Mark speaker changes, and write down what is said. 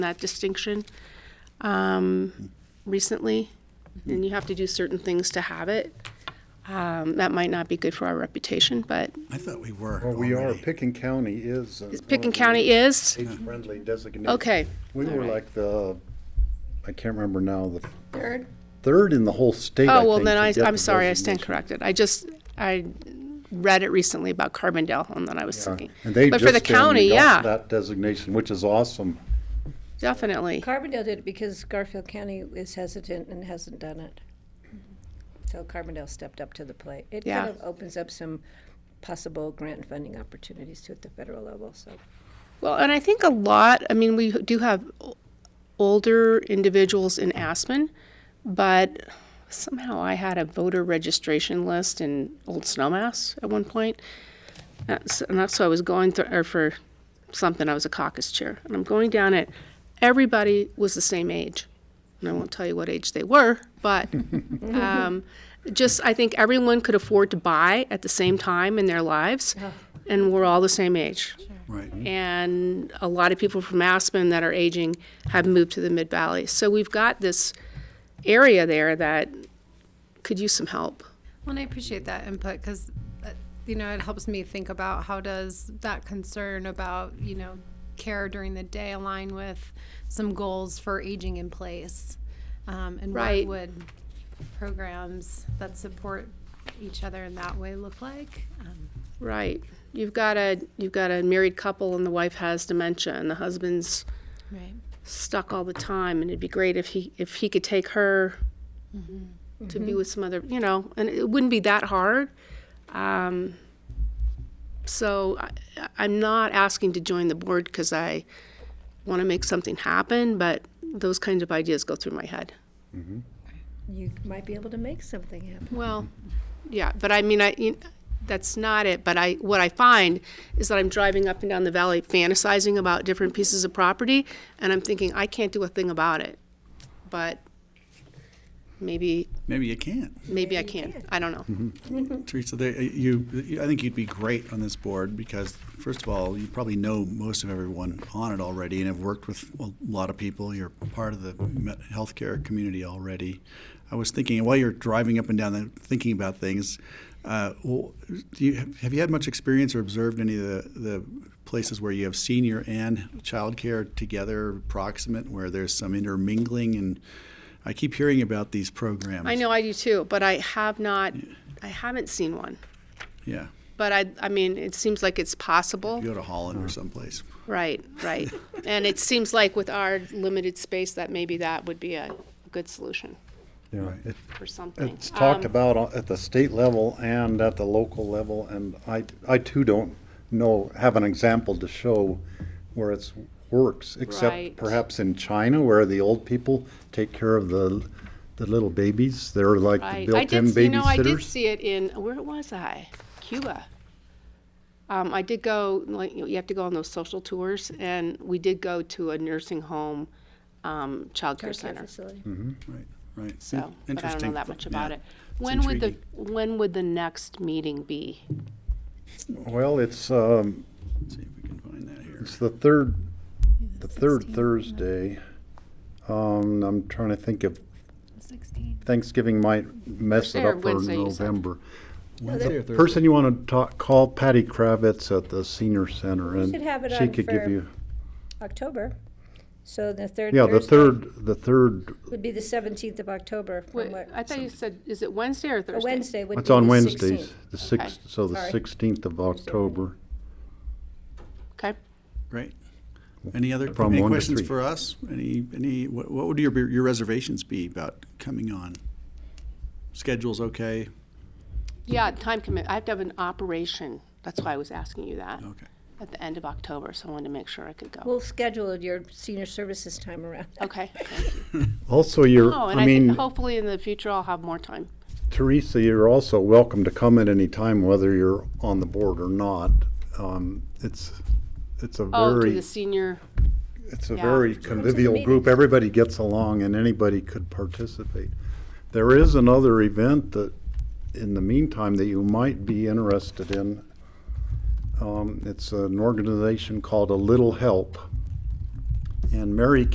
Speaker 1: that distinction um, recently, and you have to do certain things to have it. Um, That might not be good for our reputation, but
Speaker 2: I thought we were.
Speaker 3: Well, we are,
Speaker 2: already.
Speaker 3: Picken County is. uh, an
Speaker 1: Picken
Speaker 3: overly
Speaker 1: County is,
Speaker 3: Age-friendly designation.
Speaker 1: Okay,
Speaker 3: We
Speaker 1: all
Speaker 3: were
Speaker 1: right.
Speaker 3: like the, I can't remember now, the
Speaker 4: Third,
Speaker 3: third in the whole state, I
Speaker 1: oh, well,
Speaker 3: think,
Speaker 1: then
Speaker 3: to
Speaker 1: I,
Speaker 3: get
Speaker 1: I'm
Speaker 3: the
Speaker 1: sorry, I stand
Speaker 3: designation.
Speaker 1: corrected. I just, I read it recently about Carbondale, and then I was
Speaker 3: Yeah.
Speaker 1: thinking.
Speaker 3: And they
Speaker 1: But for the
Speaker 3: just
Speaker 1: county,
Speaker 3: only got
Speaker 1: yeah,
Speaker 3: that designation, which is awesome.
Speaker 1: definitely.
Speaker 4: Carbondale did it because Garfield County is hesitant and hasn't done it. So Carbondale stepped up to the plate. It
Speaker 1: Yeah.
Speaker 4: kind of opens up some possible grant funding opportunities too at the federal level, so.
Speaker 1: Well, and I think a lot, I mean, we do have o- older individuals in Aspen, but somehow I had a voter registration list in Old Snowmass at one point. That's, and that's why I was going through, or for something, I was a caucus chair. And I'm going down it, everybody was the same age. And I won't tell you what age they were, but um, just I think everyone could afford to buy at the same time in their lives, and we're all the same age.
Speaker 2: Right.
Speaker 1: And a lot of people from Aspen that are aging have moved to the Mid Valley. So we've got this area there that could use some help.
Speaker 5: Well, and I appreciate that input because, you know, it helps me think about how does that concern about, you know, care during the day align with some goals for aging in place? Um, and
Speaker 1: Right.
Speaker 5: what would programs that support each other in that way look like? Um,
Speaker 1: Right. You've got a you've got a married couple and the wife has dementia and the husband's
Speaker 5: right.
Speaker 1: stuck all the time and it'd be great if he if he could take her to be with some other you know and it wouldn't be that hard um, so I, i'm not asking to join the board because i want to make something happen but those kinds of ideas go through my head
Speaker 4: You might be able to make something happen.
Speaker 1: well yeah but i mean i you that's not it but i what i find is that i'm driving up and down the valley fantasizing about different pieces of property and i'm thinking i can't do a thing about it but maybe
Speaker 2: Maybe you can't.
Speaker 1: maybe i can i don't know
Speaker 2: Teresa, they, you, you- I think you'd be great on this board because, first of all, you probably know most of everyone on it already and have worked with a lot of people. You're part of the me- healthcare community already. I was thinking, while you're driving up and down, there thinking about things, uh, well, do you, have you had much experience or observed any of the, the places where you have senior and childcare together, proximate, where there's some intermingling? And I keep hearing about these programs.
Speaker 1: i know i do too but i have not i haven't seen one
Speaker 2: Yeah.
Speaker 1: but i i mean it seems like it's possible
Speaker 2: You go to Holland or someplace.
Speaker 1: right right and it seems like with our limited space that maybe that would be a good solution
Speaker 3: Yeah, it-
Speaker 1: for something
Speaker 3: It's talked
Speaker 1: Um,
Speaker 3: about on- at the state level and at the local level, and I, I too don't know, have an example to show where it's works,
Speaker 1: Right.
Speaker 3: except perhaps in China, where the old people take care of the, the little babies. They're like the
Speaker 1: Right. I did,
Speaker 3: built-in
Speaker 1: s- you know, I did
Speaker 3: babysitters.
Speaker 1: see it in, where was I? Cuba. Um, I did go, like, you you have to go on those social tours, and we did go to a nursing home, um, childcare
Speaker 4: Daycare
Speaker 1: center.
Speaker 4: facility.
Speaker 2: Right, right.
Speaker 1: So, but I don't know that much about it.
Speaker 2: It's
Speaker 1: When would the, when would the next meeting be?
Speaker 3: Well, it's, um,
Speaker 2: Let's see if we can find that here.
Speaker 3: it's the third, the third Thursday. Um, I'm trying to think of, Thanksgiving might mess it
Speaker 1: Or
Speaker 3: up for
Speaker 1: Wednesday, you said.
Speaker 3: November.
Speaker 4: Oh,
Speaker 2: Wednesday or Thursday?
Speaker 3: Person you want to talk, call Patty Kravitz at the senior center and
Speaker 4: should have it
Speaker 3: she
Speaker 4: on
Speaker 3: could
Speaker 4: for
Speaker 3: give you,
Speaker 4: October, so the third
Speaker 3: yeah, the
Speaker 4: Thursday
Speaker 3: third, the third,
Speaker 4: would be the seventeenth of October from
Speaker 1: Wait,
Speaker 4: what,
Speaker 1: I thought you said, is it Wednesday or
Speaker 4: a
Speaker 1: Thursday?
Speaker 4: Wednesday would be
Speaker 3: it's
Speaker 4: the
Speaker 3: on Wednesdays,
Speaker 4: sixteenth.
Speaker 3: the sixth, so the
Speaker 4: Sorry.
Speaker 3: sixteenth of October.
Speaker 1: Okay.
Speaker 2: Right. Any other,
Speaker 3: From
Speaker 2: any
Speaker 3: one to
Speaker 2: questions
Speaker 3: three.
Speaker 2: for us? Any, any, what what would your, your reservations be about coming on? Schedule's okay?
Speaker 1: Yeah, time commit, I have to have an operation. That's why I was asking you that
Speaker 3: Oh.
Speaker 2: Okay.
Speaker 1: at the end of October, so I wanted to make sure I could go.
Speaker 4: We'll schedule your senior services time around.
Speaker 1: Okay.
Speaker 3: Also, you're,
Speaker 1: Oh, and
Speaker 3: I
Speaker 1: I think
Speaker 3: mean,
Speaker 1: hopefully in the future I'll have more time.
Speaker 3: Teresa, you're also welcome to come at any time, whether you're on the board or not. Um, It's, it's a
Speaker 1: Oh, to
Speaker 3: very,
Speaker 1: the senior,
Speaker 3: it's a
Speaker 1: yeah.
Speaker 3: very convivial group. Everybody gets along and anybody could participate. There is another event that, in the meantime, that you might be interested in. Um, It's an organization called A Little Help. And Mary